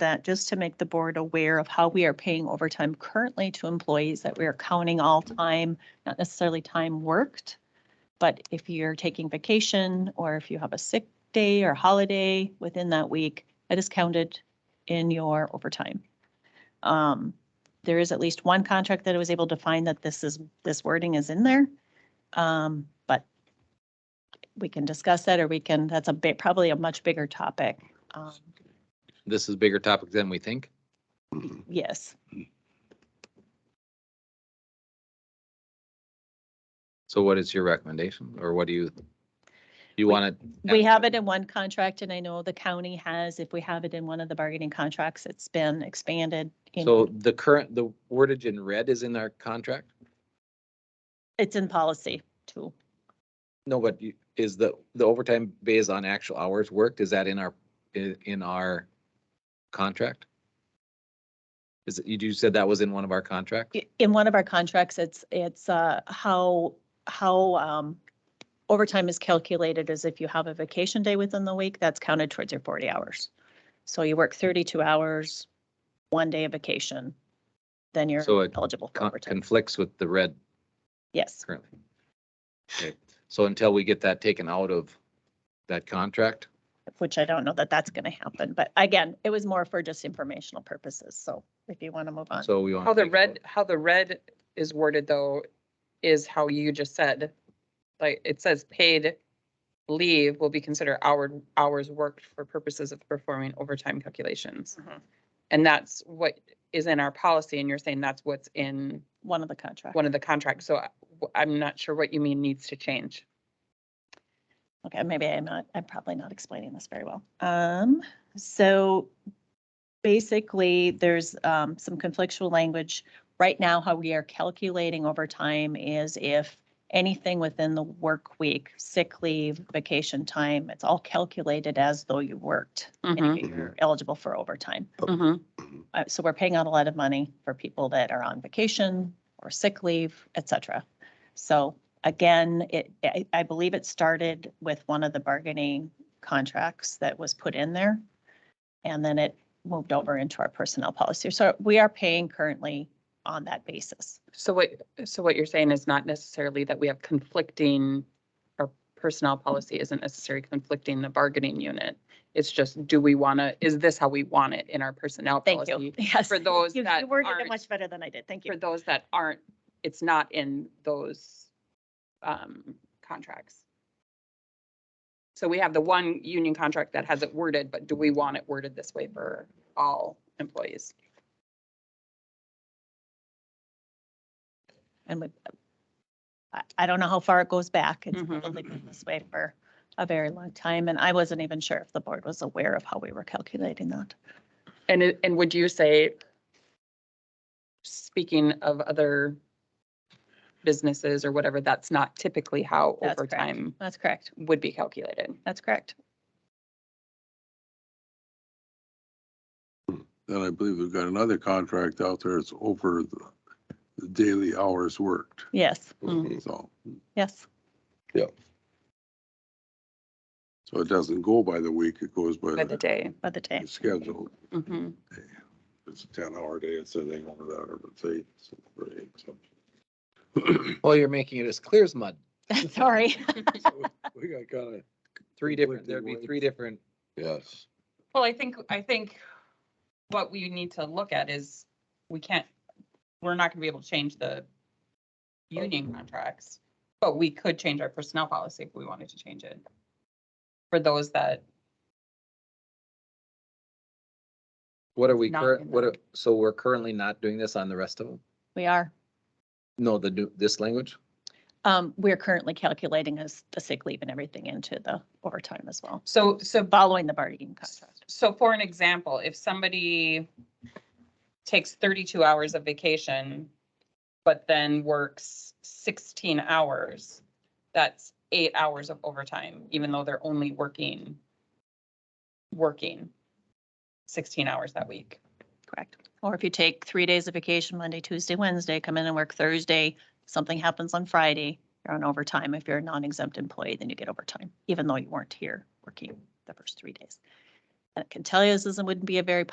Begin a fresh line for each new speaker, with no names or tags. that just to make the board aware of how we are paying overtime currently to employees, that we are counting all time, not necessarily time worked. But if you're taking vacation or if you have a sick day or holiday within that week, that is counted in your overtime. Um, there is at least one contract that I was able to find that this is, this wording is in there. Um, but we can discuss that or we can, that's a bit, probably a much bigger topic. Um,
This is a bigger topic than we think.
yes.
So what is your recommendation or what do you, you
We-
want to?
We have it in one contract and I know the county has, if we have it in one of the bargaining contracts, it's been expanded. in-
So the current, the wordage in red is in our contract?
It's in policy too.
No, but you- is the, the overtime based on actual hours worked? Is that in our, i- in our contract? Is it, you you said that was in one of our contracts?
I- In one of our contracts, it's, it's uh, how, how um, overtime is calculated is if you have a vacation day within the week, that's counted towards your 40 hours. So you work 32 hours, one day of vacation, then you're
So it
eligible for
Con-
overtime.
Conflicts with the red
Yes,
currently. Okay, so until we get that taken out of that contract,
which I don't know that that's going to happen. But again, it was more for just informational purposes. So if you want to move on.
so we want.
How Oh, the red, how the red is worded though, is how you just said. Like, it says paid leave will be considered hour, hours worked for purposes of performing overtime calculations.
Mhm.
And that's what is in our policy, and you're saying that's what's in
One of the contracts.
one of the contracts, so I- I'm not sure what you mean needs to change.
Okay, maybe I'm not, I'm probably not explaining this very well. Um, so basically, there's um, some conflictual language. Right now, how we are calculating overtime is if anything within the work week, sick leave, vacation time, it's all calculated as though you worked and
Mhm,
you're eligible for overtime.
mhm.
Uh, so we're paying out a lot of money for people that are on vacation or sick leave, et cetera. So again, it, I, I believe it started with one of the bargaining contracts that was put in there. And then it moved over into our personnel policy. So we are paying currently on that basis.
So what, so what you're saying is not necessarily that we have conflicting, our personnel policy isn't necessarily conflicting the bargaining unit. It's just, do we want to, is this how we want it in our personnel
Thank you.
policy?
Yes.
For those
You-
that
You worded it
aren't-
much better than I did. Thank
For
you.
those that aren't, it's not in those um, contracts. So we have the one union contract that has it worded, but do we want it worded this way for all employees?
And we, I, I don't know how far it goes back. It's
Mhm.
probably been this way for a very long time, and I wasn't even sure if the board was aware of how we were calculating that.
And, it- and would you say, speaking of other businesses or whatever, that's not typically how
That's correct.
overtime
That's correct.
would be calculated?
That's correct.
Then I believe we've got another contract out there. It's over the the daily hours worked.
Yes,
Mhm.
So,
yes.
so it doesn't go by the week. It goes by
By the
the
day.
By the day.
the schedule.
Mhm.
It's a ten hour day. It's a thing over that, but say.
Well, Oh, you're making it as clear as mud.
Sorry.
We got kind of.
Three different, there'd be
Conflicting
three different,
Yes.
Well, I think, I think what we need to look at is, we can't, we're not gonna be able to change the union contracts, but we could change our personnel policy if we wanted to change it. For those that,
what are we
Not
current,
in
what
the-
are, so we're currently not doing this on the rest of them?
We are,
No, the, new this language?
um, we're currently calculating as the sick leave and everything into the overtime as well,
so, so
following the bargaining contract.
So for an example, if somebody takes thirty-two hours of vacation, but then works sixteen hours, that's eight hours of overtime, even though they're only working, working sixteen hours that week.
Correct. Or if you take three days of vacation, Monday, Tuesday, Wednesday, come in and work Thursday, something happens on Friday, you're on overtime. If you're a non-exempt employee, then you get overtime, even though you weren't here working the first three days. And I can tell you, this isn't, wouldn't be a very